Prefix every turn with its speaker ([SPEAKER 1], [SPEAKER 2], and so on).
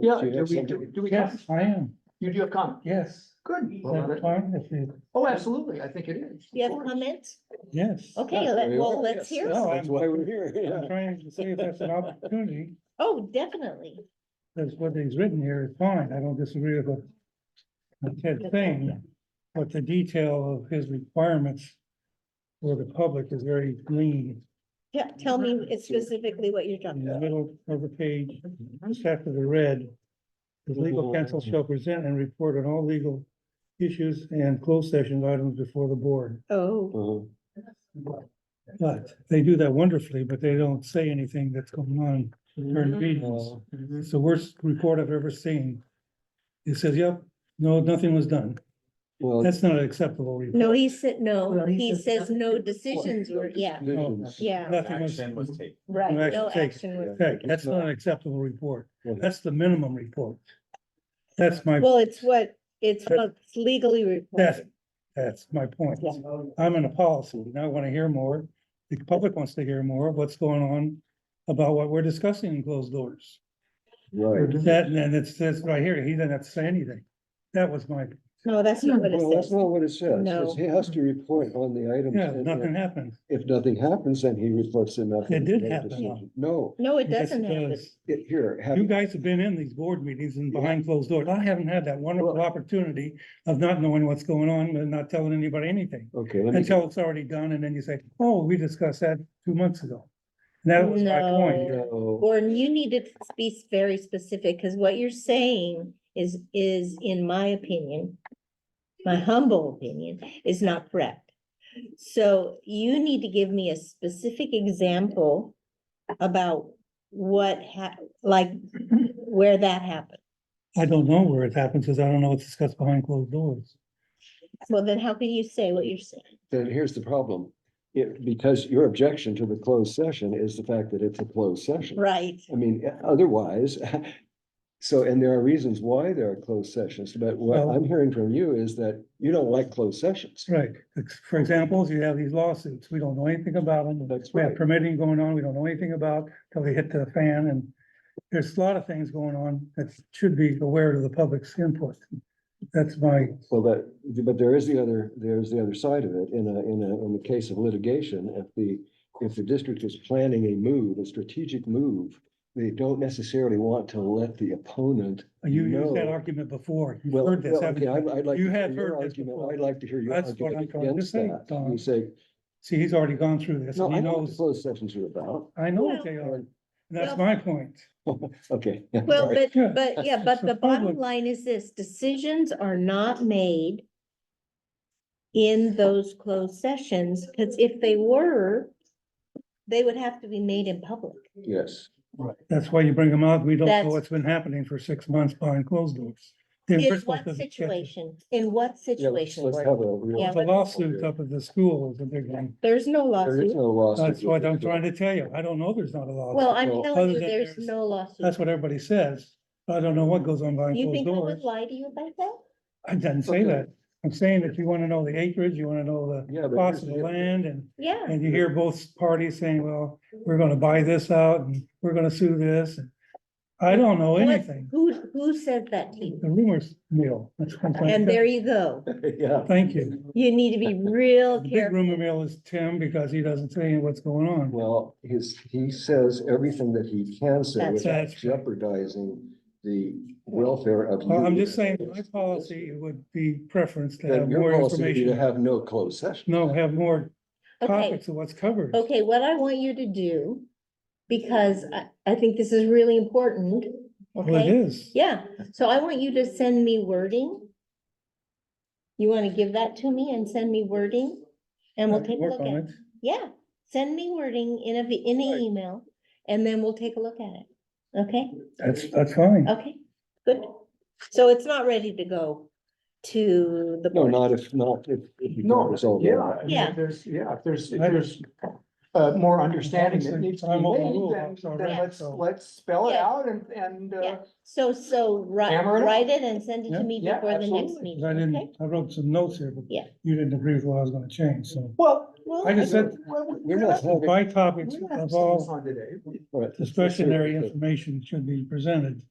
[SPEAKER 1] Yeah,
[SPEAKER 2] Do you
[SPEAKER 1] do
[SPEAKER 2] have
[SPEAKER 1] we, do
[SPEAKER 2] something?
[SPEAKER 1] do we,
[SPEAKER 3] Yes, I am,
[SPEAKER 1] you do have comment?
[SPEAKER 3] yes.
[SPEAKER 1] Good.
[SPEAKER 3] I'm fine with you.
[SPEAKER 1] Oh, absolutely, I think it is.
[SPEAKER 4] Do you
[SPEAKER 1] Of
[SPEAKER 4] have
[SPEAKER 1] course.
[SPEAKER 4] comments?
[SPEAKER 3] yes.
[SPEAKER 4] Okay,
[SPEAKER 2] Yeah,
[SPEAKER 4] let-
[SPEAKER 2] there you
[SPEAKER 4] well,
[SPEAKER 2] are.
[SPEAKER 4] let's hear.
[SPEAKER 3] No,
[SPEAKER 4] some.
[SPEAKER 2] That's
[SPEAKER 3] I'm,
[SPEAKER 2] why we're here,
[SPEAKER 3] I'm
[SPEAKER 2] yeah.
[SPEAKER 3] trying to see if that's an opportunity,
[SPEAKER 4] Oh, definitely.
[SPEAKER 3] because what he's written here is fine, I don't disagree with what Ted saying, but the detail of his requirements for the public is very lean.
[SPEAKER 4] Yeah, tell me it's specifically what you're
[SPEAKER 3] In
[SPEAKER 4] talking
[SPEAKER 3] the
[SPEAKER 4] about.
[SPEAKER 3] middle of the page, just after the red, the legal counsel shall present and report on all legal issues and closed session items before the board.
[SPEAKER 4] Oh,
[SPEAKER 2] Uh-huh.
[SPEAKER 3] But they do that wonderfully, but they don't say anything that's going on during
[SPEAKER 4] Mm-hmm.
[SPEAKER 3] meetings.
[SPEAKER 1] Mhm.
[SPEAKER 3] It's the worst report I've ever seen. It says, yep, no, nothing was done.
[SPEAKER 2] Well,
[SPEAKER 3] That's not an acceptable report.
[SPEAKER 4] no, he said, no,
[SPEAKER 1] Well, he
[SPEAKER 4] he
[SPEAKER 1] says
[SPEAKER 4] says no
[SPEAKER 1] nothing.
[SPEAKER 4] decisions were, yeah,
[SPEAKER 2] decisions-
[SPEAKER 4] yeah,
[SPEAKER 3] Nothing was,
[SPEAKER 5] Action was taken.
[SPEAKER 4] right.
[SPEAKER 3] No
[SPEAKER 4] No
[SPEAKER 3] action
[SPEAKER 4] action was.
[SPEAKER 3] okay, that's not an acceptable report. That's the minimum report. That's my,
[SPEAKER 4] Well, it's what, it's what's legally
[SPEAKER 3] that's,
[SPEAKER 4] required.
[SPEAKER 3] that's my point.
[SPEAKER 4] Yeah.
[SPEAKER 3] I'm in a policy, and I want to hear more. The public wants to hear more of what's going on about what we're discussing in closed doors.
[SPEAKER 2] Right.
[SPEAKER 3] That, and then it says right here, he doesn't have to say anything. That was my,
[SPEAKER 4] No, that's not what it
[SPEAKER 2] Well, that's
[SPEAKER 4] says.
[SPEAKER 2] not what it says. It
[SPEAKER 4] No.
[SPEAKER 2] says He has to report on the items.
[SPEAKER 3] yeah,
[SPEAKER 2] and
[SPEAKER 3] nothing happened.
[SPEAKER 2] If nothing happens, then he reports that nothing.
[SPEAKER 3] It did
[SPEAKER 2] no
[SPEAKER 3] happen.
[SPEAKER 2] decision. No,
[SPEAKER 4] No, it
[SPEAKER 3] Yes,
[SPEAKER 4] doesn't happen.
[SPEAKER 3] does.
[SPEAKER 2] it- here, have.
[SPEAKER 3] You guys have been in these board meetings and behind closed doors. I haven't had that wonderful
[SPEAKER 2] Well-
[SPEAKER 3] opportunity of not knowing what's going on and not telling anybody anything.
[SPEAKER 2] Okay, let me,
[SPEAKER 3] Until it's already done and then you say, oh, we discussed that two months ago. And That was my point.
[SPEAKER 4] No.
[SPEAKER 2] no,
[SPEAKER 4] Gordon, you need to be very specific, because what you're saying is, is, in my opinion, my humble opinion, is not correct. So you need to give me a specific example about what hap, like, where that happened.
[SPEAKER 3] I don't know where it happened because I don't know what's discussed behind closed doors.
[SPEAKER 4] Well, then how can you say what you're saying?
[SPEAKER 2] then here's the problem. It, because your objection to the closed session is the fact that it's a closed session.
[SPEAKER 4] Right,
[SPEAKER 2] I mean, otherwise, so, and there are reasons why there are closed sessions, but what
[SPEAKER 3] Well-
[SPEAKER 2] I'm hearing from you is that you don't like closed sessions.
[SPEAKER 3] Right. For example, you have these lawsuits. We don't know anything about them.
[SPEAKER 2] That's
[SPEAKER 3] We
[SPEAKER 2] right.
[SPEAKER 3] have permitting going on, we don't know anything about till they hit the fan and there's a lot of things going on that should be aware of the public's input. That's my,
[SPEAKER 2] Well, that, but there is the other, there's the other side of it. In a, in a, in the case of litigation, if the, if the district is planning a move, a strategic move, they don't necessarily want to let the opponent
[SPEAKER 3] Uh, you used that
[SPEAKER 2] No.
[SPEAKER 3] argument before. You've
[SPEAKER 2] Well,
[SPEAKER 3] heard this,
[SPEAKER 2] well,
[SPEAKER 3] haven't
[SPEAKER 2] okay,
[SPEAKER 3] you?
[SPEAKER 2] I'd, I'd like.
[SPEAKER 3] You
[SPEAKER 2] to hear
[SPEAKER 3] have
[SPEAKER 2] your
[SPEAKER 3] heard this
[SPEAKER 2] argument.
[SPEAKER 3] before.
[SPEAKER 2] I'd like to hear your
[SPEAKER 3] That's what I'm
[SPEAKER 2] argument
[SPEAKER 3] trying to
[SPEAKER 2] against
[SPEAKER 3] say,
[SPEAKER 2] that.
[SPEAKER 3] Don.
[SPEAKER 2] You say,
[SPEAKER 3] See, he's already gone through this.
[SPEAKER 2] no,
[SPEAKER 3] and
[SPEAKER 2] I
[SPEAKER 3] He
[SPEAKER 2] know what the
[SPEAKER 3] knows,
[SPEAKER 2] closed sessions are about.
[SPEAKER 3] I know what they are. and
[SPEAKER 2] And-
[SPEAKER 3] That's
[SPEAKER 4] Well-
[SPEAKER 3] my point.
[SPEAKER 2] Okay. yeah,
[SPEAKER 4] well,
[SPEAKER 2] sorry.
[SPEAKER 4] but,
[SPEAKER 3] Yeah.
[SPEAKER 4] but, yeah, but the
[SPEAKER 3] It's a
[SPEAKER 4] bottom
[SPEAKER 3] public-
[SPEAKER 4] line is this, decisions are not made in those closed sessions, because if they were, they would have to be made in public.
[SPEAKER 2] Yes.
[SPEAKER 3] That's why you bring them out. We don't know
[SPEAKER 4] That's-
[SPEAKER 3] what's been happening for six months behind closed doors. They were
[SPEAKER 4] In
[SPEAKER 3] supposed to
[SPEAKER 4] what
[SPEAKER 3] check it.
[SPEAKER 4] situation, in what
[SPEAKER 2] Yeah, let's-
[SPEAKER 4] situation,
[SPEAKER 2] let's
[SPEAKER 4] Gordon?
[SPEAKER 2] have a real-
[SPEAKER 4] Yeah,
[SPEAKER 3] Well, The lawsuit up at the school is a big one.
[SPEAKER 4] There's no
[SPEAKER 2] There is
[SPEAKER 4] lawsuit.
[SPEAKER 2] no lawsuit.
[SPEAKER 3] That's what I'm trying to tell you. I don't know there's not a lawsuit.
[SPEAKER 4] Well, I'm
[SPEAKER 2] well,
[SPEAKER 4] telling
[SPEAKER 3] other
[SPEAKER 4] you,
[SPEAKER 3] than
[SPEAKER 4] there's
[SPEAKER 3] there's-
[SPEAKER 4] no lawsuit.
[SPEAKER 3] That's what everybody says. I don't know what goes on behind
[SPEAKER 4] You
[SPEAKER 3] closed
[SPEAKER 4] think I would
[SPEAKER 3] doors.
[SPEAKER 4] lie to you about that?
[SPEAKER 3] I didn't say
[SPEAKER 2] Okay.
[SPEAKER 3] that. I'm saying that you want to know the acreage, you want to know
[SPEAKER 2] Yeah,
[SPEAKER 3] the
[SPEAKER 2] but
[SPEAKER 3] cost
[SPEAKER 2] here's
[SPEAKER 3] of the
[SPEAKER 2] the-
[SPEAKER 3] land and,
[SPEAKER 4] Yeah,
[SPEAKER 3] and you hear both parties saying, well, we're gonna buy this out and we're gonna sue this. and I don't know
[SPEAKER 4] What-
[SPEAKER 3] anything.
[SPEAKER 4] who, who said that to you?
[SPEAKER 3] The rumors, mill. That's one point.
[SPEAKER 4] And there you go.
[SPEAKER 2] Yeah.
[SPEAKER 3] Thank you.
[SPEAKER 4] You need to be real
[SPEAKER 3] The big
[SPEAKER 4] careful.
[SPEAKER 3] rumor mill is Tim because he doesn't say what's going on.
[SPEAKER 2] Well, his, he says everything that he can say
[SPEAKER 4] That's
[SPEAKER 2] without
[SPEAKER 3] right.
[SPEAKER 2] jeopardizing the welfare of.
[SPEAKER 3] Well, Uh, I'm
[SPEAKER 2] you.
[SPEAKER 3] just saying, my policy would be preference to have
[SPEAKER 2] Then your
[SPEAKER 3] more
[SPEAKER 2] policy would be to
[SPEAKER 3] information.
[SPEAKER 2] have no closed session.
[SPEAKER 3] No, have more
[SPEAKER 4] Okay.
[SPEAKER 3] topics of what's covered.
[SPEAKER 4] Okay, what I want you to do, because I, I think this is really important,
[SPEAKER 3] Well, it
[SPEAKER 4] okay?
[SPEAKER 3] is.
[SPEAKER 4] Yeah, so I want you to send me wording. You wanna give that to me and send me wording? And we'll
[SPEAKER 3] I
[SPEAKER 4] take a
[SPEAKER 3] work
[SPEAKER 4] look
[SPEAKER 3] on
[SPEAKER 4] at it. Yeah, send me wording in a, v- in an
[SPEAKER 2] Right.
[SPEAKER 4] email, and then we'll take a look at it. Okay,
[SPEAKER 3] That's, that's fine.
[SPEAKER 4] okay, good. So it's not ready to go to the
[SPEAKER 2] No,
[SPEAKER 4] board.
[SPEAKER 2] not if, not if. if you can't
[SPEAKER 1] No,
[SPEAKER 2] resolve
[SPEAKER 1] yeah,
[SPEAKER 2] that.
[SPEAKER 1] I mean,
[SPEAKER 4] Yeah.
[SPEAKER 1] there's, yeah, if there's, if
[SPEAKER 3] I-
[SPEAKER 1] there's uh, more understanding that
[SPEAKER 3] Obviously,
[SPEAKER 1] needs to be
[SPEAKER 3] I'm overruled,
[SPEAKER 1] made,
[SPEAKER 3] so
[SPEAKER 1] then,
[SPEAKER 3] right,
[SPEAKER 1] then let's,
[SPEAKER 3] so-
[SPEAKER 1] let's spell it
[SPEAKER 4] Yeah.
[SPEAKER 1] out and, and, uh,
[SPEAKER 4] Yeah. So, so write,
[SPEAKER 1] Hammer it out.
[SPEAKER 4] write it and send it
[SPEAKER 3] Yeah.
[SPEAKER 4] to me
[SPEAKER 1] Yeah,
[SPEAKER 4] before the next
[SPEAKER 1] absolutely.
[SPEAKER 4] meeting,
[SPEAKER 3] 'Cause I
[SPEAKER 4] okay?
[SPEAKER 3] didn't, I wrote some notes here, but
[SPEAKER 4] Yeah.
[SPEAKER 3] you didn't agree with what I was gonna change, so.
[SPEAKER 1] well.
[SPEAKER 4] Well,
[SPEAKER 3] I just said-
[SPEAKER 1] well, we-
[SPEAKER 2] We're not having.
[SPEAKER 3] My topics
[SPEAKER 1] We're not
[SPEAKER 3] of
[SPEAKER 1] saying this
[SPEAKER 3] all
[SPEAKER 1] on today.
[SPEAKER 2] all right, let's- let's hear
[SPEAKER 3] discretionary
[SPEAKER 2] it.
[SPEAKER 3] information should be presented